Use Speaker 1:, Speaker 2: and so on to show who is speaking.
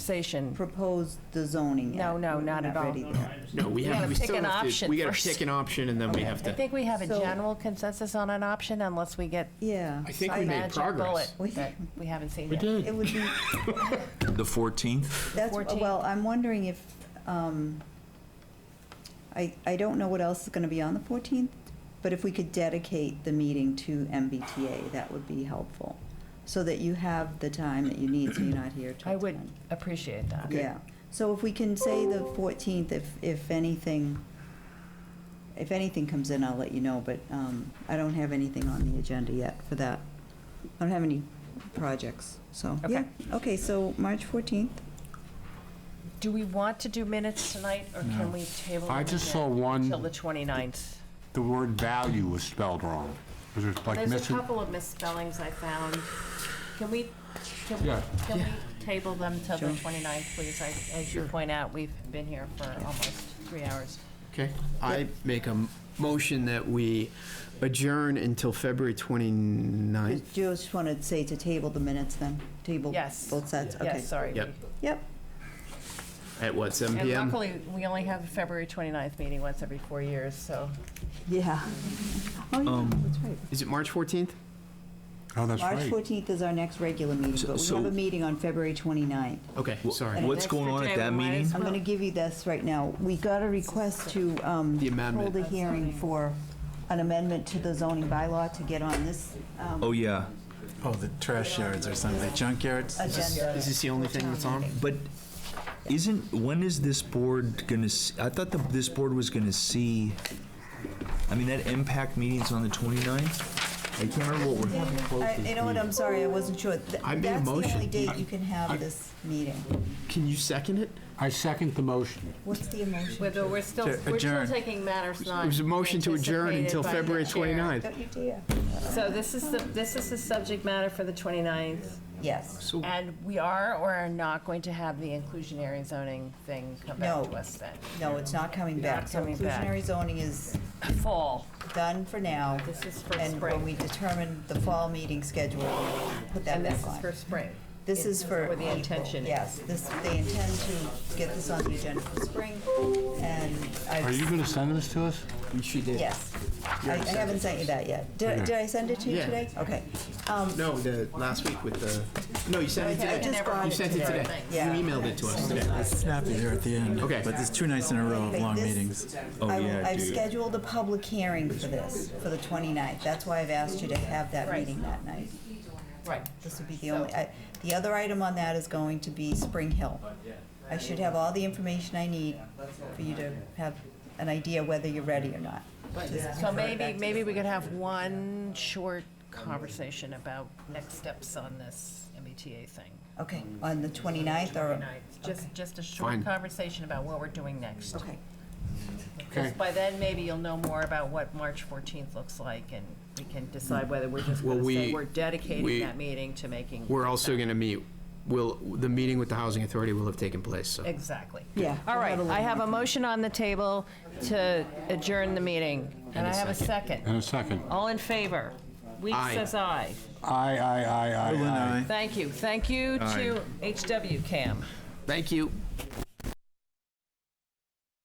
Speaker 1: conversation.
Speaker 2: propose the zoning yet.
Speaker 1: No, no,
Speaker 2: We're
Speaker 1: not at all.
Speaker 2: ready there.
Speaker 3: No, we
Speaker 1: gotta
Speaker 3: have, we
Speaker 1: pick
Speaker 3: still
Speaker 1: an
Speaker 3: have to,
Speaker 1: option
Speaker 3: we gotta
Speaker 1: first.
Speaker 3: pick an option and then we have
Speaker 1: I
Speaker 3: to.
Speaker 1: think we have a
Speaker 2: So-
Speaker 1: general consensus on an option unless we get
Speaker 2: Yeah.
Speaker 3: I think we
Speaker 1: some
Speaker 3: made
Speaker 1: magic bullet
Speaker 3: progress.
Speaker 2: We-
Speaker 1: that we haven't seen
Speaker 4: We
Speaker 1: yet.
Speaker 4: did.
Speaker 2: It would be,
Speaker 5: The 14th?
Speaker 2: that's,
Speaker 1: 14.
Speaker 2: well, I'm wondering if, um, I, I don't know what else is going to be on the 14th, but if we could dedicate the meeting to MBTA, that would be helpful. So that you have the time that you need, so you're not here till
Speaker 1: I would
Speaker 2: 10.
Speaker 1: appreciate that.
Speaker 2: Yeah, so if we can say the 14th, if, if anything, if anything comes in, I'll let you know, but um, I don't have anything on the agenda yet for that. I don't have any projects, so.
Speaker 1: Okay.
Speaker 2: yeah. Okay, so March 14th,
Speaker 1: Do we want to do minutes tonight or can we table?
Speaker 4: I
Speaker 1: them
Speaker 4: just
Speaker 1: again
Speaker 4: saw one-
Speaker 1: Till the 29th.
Speaker 4: The word value was spelled wrong. It was like
Speaker 6: There's a
Speaker 4: missing,
Speaker 6: couple of misspellings I found. Can we, can we,
Speaker 4: Yeah.
Speaker 6: can we table them till the
Speaker 2: Sure.
Speaker 6: 29th, please? I- As you point out, we've been here for almost three hours.
Speaker 3: Okay, I make a m- motion that we adjourn until February 29th.
Speaker 2: Just- just want to say to table the minutes then, table
Speaker 1: Yes.
Speaker 2: both sets, okay.
Speaker 1: Yes, sorry.
Speaker 3: Yep,
Speaker 2: Yep,
Speaker 3: at what, seven
Speaker 1: And
Speaker 3: PM?
Speaker 1: luckily, we only have a February 29th meeting once every four years, so.
Speaker 2: yeah. Oh, yeah, that's right.
Speaker 3: Is it March 14th?
Speaker 4: oh, that's
Speaker 2: March
Speaker 4: right.
Speaker 2: 14th is our next regular meeting,
Speaker 5: So-
Speaker 2: but we
Speaker 5: so-
Speaker 2: have a meeting on February 29th.
Speaker 3: Okay,
Speaker 5: Wha-
Speaker 3: sorry.
Speaker 5: What's
Speaker 6: Extra
Speaker 5: going on at
Speaker 6: day,
Speaker 5: that
Speaker 6: we might
Speaker 5: meeting?
Speaker 6: as
Speaker 2: I'm going to give you this right now. We got a request to um,
Speaker 3: The amendment.
Speaker 2: hold a hearing for an amendment to the zoning bylaw to get on this um,
Speaker 5: Oh, yeah.
Speaker 7: Oh, the trash yards or something, junkyards?
Speaker 2: agenda.
Speaker 3: Is this the only thing that's on?
Speaker 5: But isn't, when is this board gonna, s- I thought the- this board was gonna see, I mean, that impact meeting's on the 29th? I can't remember what we're having
Speaker 2: I-
Speaker 5: closed
Speaker 2: You
Speaker 5: this
Speaker 2: know what,
Speaker 5: meeting.
Speaker 2: I'm sorry, I wasn't sure. Th-
Speaker 3: I made a
Speaker 2: That's the only
Speaker 3: motion.
Speaker 2: date you can have this meeting.
Speaker 3: Can you second it?
Speaker 4: I second the motion.
Speaker 2: What's the emotion?
Speaker 6: We're we're still,
Speaker 7: To
Speaker 6: we're still
Speaker 7: adjourn.
Speaker 6: taking matters not
Speaker 3: It was a motion to adjourn
Speaker 6: anticipated
Speaker 3: until
Speaker 6: by the
Speaker 3: February
Speaker 6: chair.
Speaker 3: 29th.
Speaker 2: Don't you dare.
Speaker 1: So this is the, this is the subject matter for the 29th.
Speaker 2: Yes.
Speaker 3: So
Speaker 1: And we are or are not going to have the inclusionary zoning thing come back
Speaker 2: No.
Speaker 1: to us then?
Speaker 2: No, it's not coming back.
Speaker 1: Not
Speaker 2: So
Speaker 1: coming back.
Speaker 2: inclusionary zoning is
Speaker 1: Fall.
Speaker 2: done for now.
Speaker 6: This is for
Speaker 2: And when
Speaker 6: spring.
Speaker 2: we determine the fall meeting schedule, we'll put that
Speaker 1: And
Speaker 2: back
Speaker 1: this is
Speaker 2: on.
Speaker 1: for spring.
Speaker 2: This is for.
Speaker 1: Or the
Speaker 2: April.
Speaker 1: intention.
Speaker 2: Yes, this, they intend to get this on the agenda for spring, and I've.
Speaker 4: Are you going to send this to us?
Speaker 3: She did.
Speaker 2: Yes. I I haven't sent you that yet. Did, did I send it to you
Speaker 3: Yeah.
Speaker 2: today? Okay. Um,
Speaker 3: No, the, last week with the, no, you sent
Speaker 2: I
Speaker 3: it today.
Speaker 2: just got
Speaker 3: You
Speaker 2: it
Speaker 3: sent it
Speaker 2: today.
Speaker 3: today. You
Speaker 2: Yeah.
Speaker 3: emailed it to us today.
Speaker 7: Snappy there at the end.
Speaker 3: Okay.
Speaker 7: But there's two nights in a row of long
Speaker 2: This-
Speaker 7: meetings.
Speaker 5: Oh,
Speaker 2: I-
Speaker 5: yeah,
Speaker 2: I've
Speaker 5: dude.
Speaker 2: scheduled a public hearing for this, for the 29th. That's why I've asked you to have that meeting that night.
Speaker 1: Right.
Speaker 2: This would be the only, I- the other item on that is going to be Spring Hill. I should have all the information I need for you to have an idea whether you're ready or not.
Speaker 1: So maybe, maybe we could have one short conversation about next steps on this MBTA thing.
Speaker 2: Okay, on the 29th or?
Speaker 1: Tonight. Just, just a
Speaker 3: Fine.
Speaker 1: short conversation about what we're doing next.
Speaker 2: Okay,
Speaker 1: Because by then, maybe you'll know more about what March 14th looks like, and we can decide whether we're just
Speaker 3: Well,
Speaker 1: going to say
Speaker 3: we-
Speaker 1: we're
Speaker 3: we-
Speaker 1: dedicating that meeting to making.
Speaker 3: We're also going to meet, will, the meeting with the Housing Authority will have taken place, so.
Speaker 1: Exactly.
Speaker 2: yeah.
Speaker 1: All right, I have a motion on the table to adjourn the meeting, and I have a second.
Speaker 4: In a second.
Speaker 1: All in favor? Weeks
Speaker 3: Aye.
Speaker 1: says aye.
Speaker 4: Aye, aye, aye, aye,
Speaker 7: Berlin,
Speaker 4: aye.
Speaker 7: aye.
Speaker 1: Thank you. Thank you to HW Cam.
Speaker 3: Thank you.